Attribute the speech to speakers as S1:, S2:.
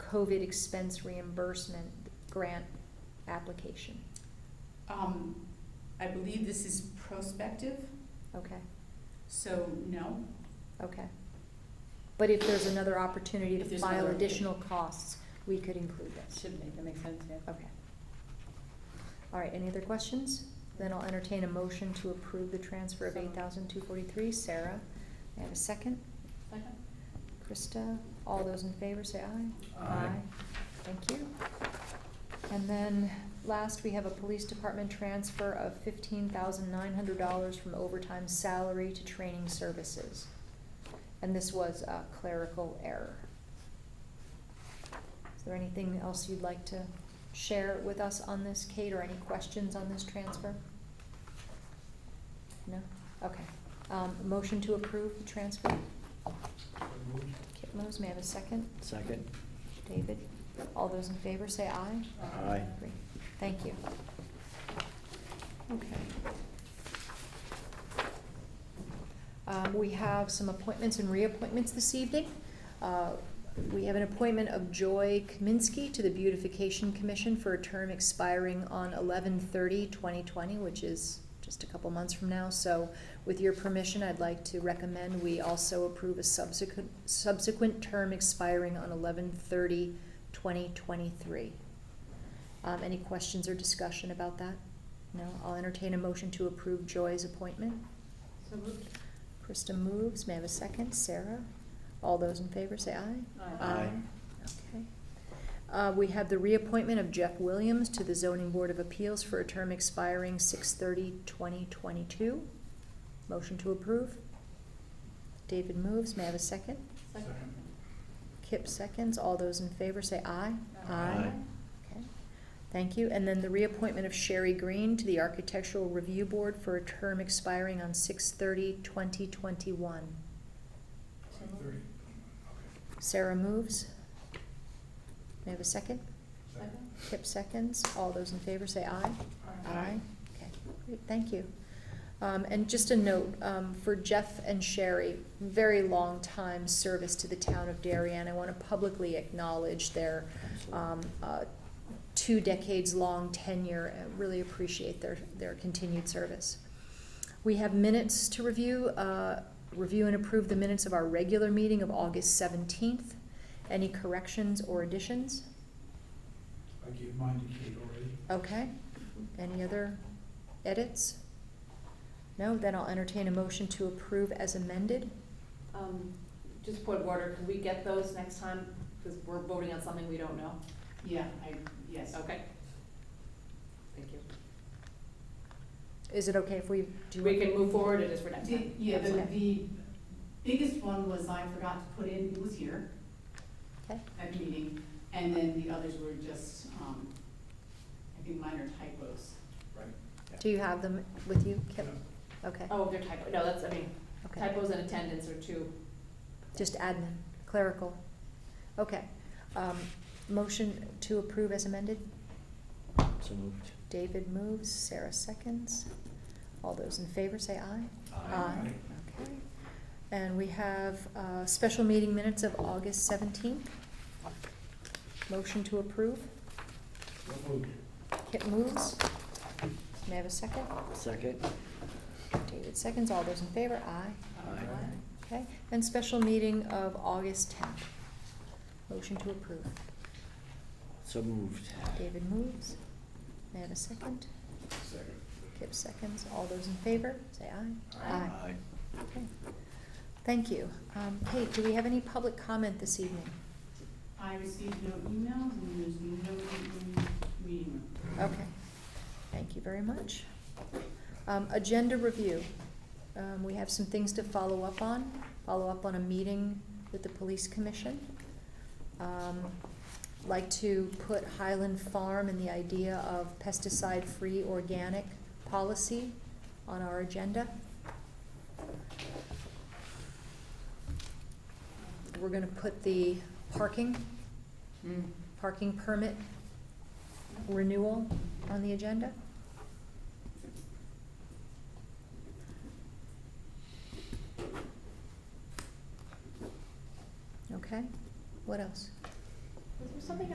S1: COVID expense reimbursement grant application?
S2: Um, I believe this is prospective,
S1: Okay,
S2: so no.
S1: okay. But if there's another opportunity
S2: If
S1: to
S2: there's
S1: file
S2: another-
S1: additional costs, we could include this.
S2: Should make, that makes sense, yeah.
S1: Okay. All right, any other questions? Then I'll entertain a motion to approve the transfer of
S2: So
S1: eight
S2: moved.
S1: thousand two forty-three. Sarah, may I have a second? Krista, all those in favor say aye.
S3: Aye.
S1: Thank you. And then last, we have a police department transfer of fifteen thousand nine hundred dollars from overtime salary to training services. And this was a clerical error. Is there anything else you'd like to share with us on this, Kate, or any questions on this transfer? No? Okay. Um, motion to approve the transfer? Kip moves, may I have a second?
S3: Second.
S1: David, all those in favor say aye.
S3: Aye.
S1: Great. Thank you. Okay. Um, we have some appointments and reappointments this evening. Uh, we have an appointment of Joy Kaminsky to the Beautification Commission for a term expiring on 11-30-2020, which is just a couple months from now. So with your permission, I'd like to recommend we also approve a subsequent, subsequent term expiring on 11-30-2023. Um, any questions or discussion about that? No, I'll entertain a motion to approve Joy's appointment.
S2: So moved.
S1: Krista moves, may I have a second? Sarah? All those in favor say aye.
S2: Aye.
S3: Aye.
S1: Okay. Uh, we have the reappointment of Jeff Williams to the Zoning Board of Appeals for a term expiring 2022. Motion to approve. David moves, may I have a second?
S2: Second.
S1: Kip seconds, all those in favor say aye.
S2: Aye.
S3: Aye.
S1: Okay, thank you. And then the reappointment of Sherry Green to the Architectural Review Board for a term expiring on 2021.
S2: So moved.
S1: Sarah moves. May I have a second?
S2: Second.
S1: Kip seconds. All those in favor say aye. Okay, great, thank you. Um, and just a note, um, for Jeff and Sherry, very long time service to the town of Darien. I wanna publicly acknowledge their, um, uh, two decades long tenure. I really appreciate their, their continued service. We have minutes to review, uh, review and approve the minutes of our regular meeting of August seventeenth. Any corrections or additions?
S4: I gave mine to Kate already.
S1: Okay, any other edits? No, then I'll entertain a motion to approve as amended.
S5: Um, just point of order, can we get those next time? Because we're voting on something we don't know.
S2: Yeah, I, yes.
S5: Okay. Thank you.
S1: Is it okay if we do?
S5: We can move forward, it is for next
S2: The,
S5: time.
S2: yeah, the,
S1: Okay.
S2: the biggest one was I forgot to put in, it was here
S1: Okay,
S2: at meeting, and then the others were just, um, I think minor typos.
S4: Right.
S1: do you have them with you, Kip? Okay,
S5: Oh, they're typo, no, that's, I mean,
S1: okay,
S5: typos and attendance are two.
S1: just admin, clerical. Okay, um, motion to approve as amended.
S3: So moved.
S1: David moves, Sarah seconds. All those in favor say aye.
S4: Aye.
S1: Okay. And we have uh, special meeting minutes of August seventeenth. Motion to approve.
S4: So moved.
S1: Kip moves. May I have a second?
S3: Second.
S1: David seconds. All those in favor? Aye.
S3: Aye.
S1: Okay. And special meeting of August tenth. Motion to approve.
S3: So moved.
S1: David moves. May I have a second?
S4: Second.
S1: Kip seconds. All those in favor? Say aye.
S4: Aye.
S1: Okay. Thank you. Um, Kate, do we have any public comment this evening?
S2: I received no emails and there's no meeting room.
S1: Okay, thank you very much. Um, agenda review, um, we have some things to follow up on, follow up on a meeting with the police commission. Um, like to put Highland Farm and the idea of pesticide-free organic policy on our agenda. We're gonna put the parking, parking permit renewal on the agenda? Okay, what else?
S2: Was there
S5: something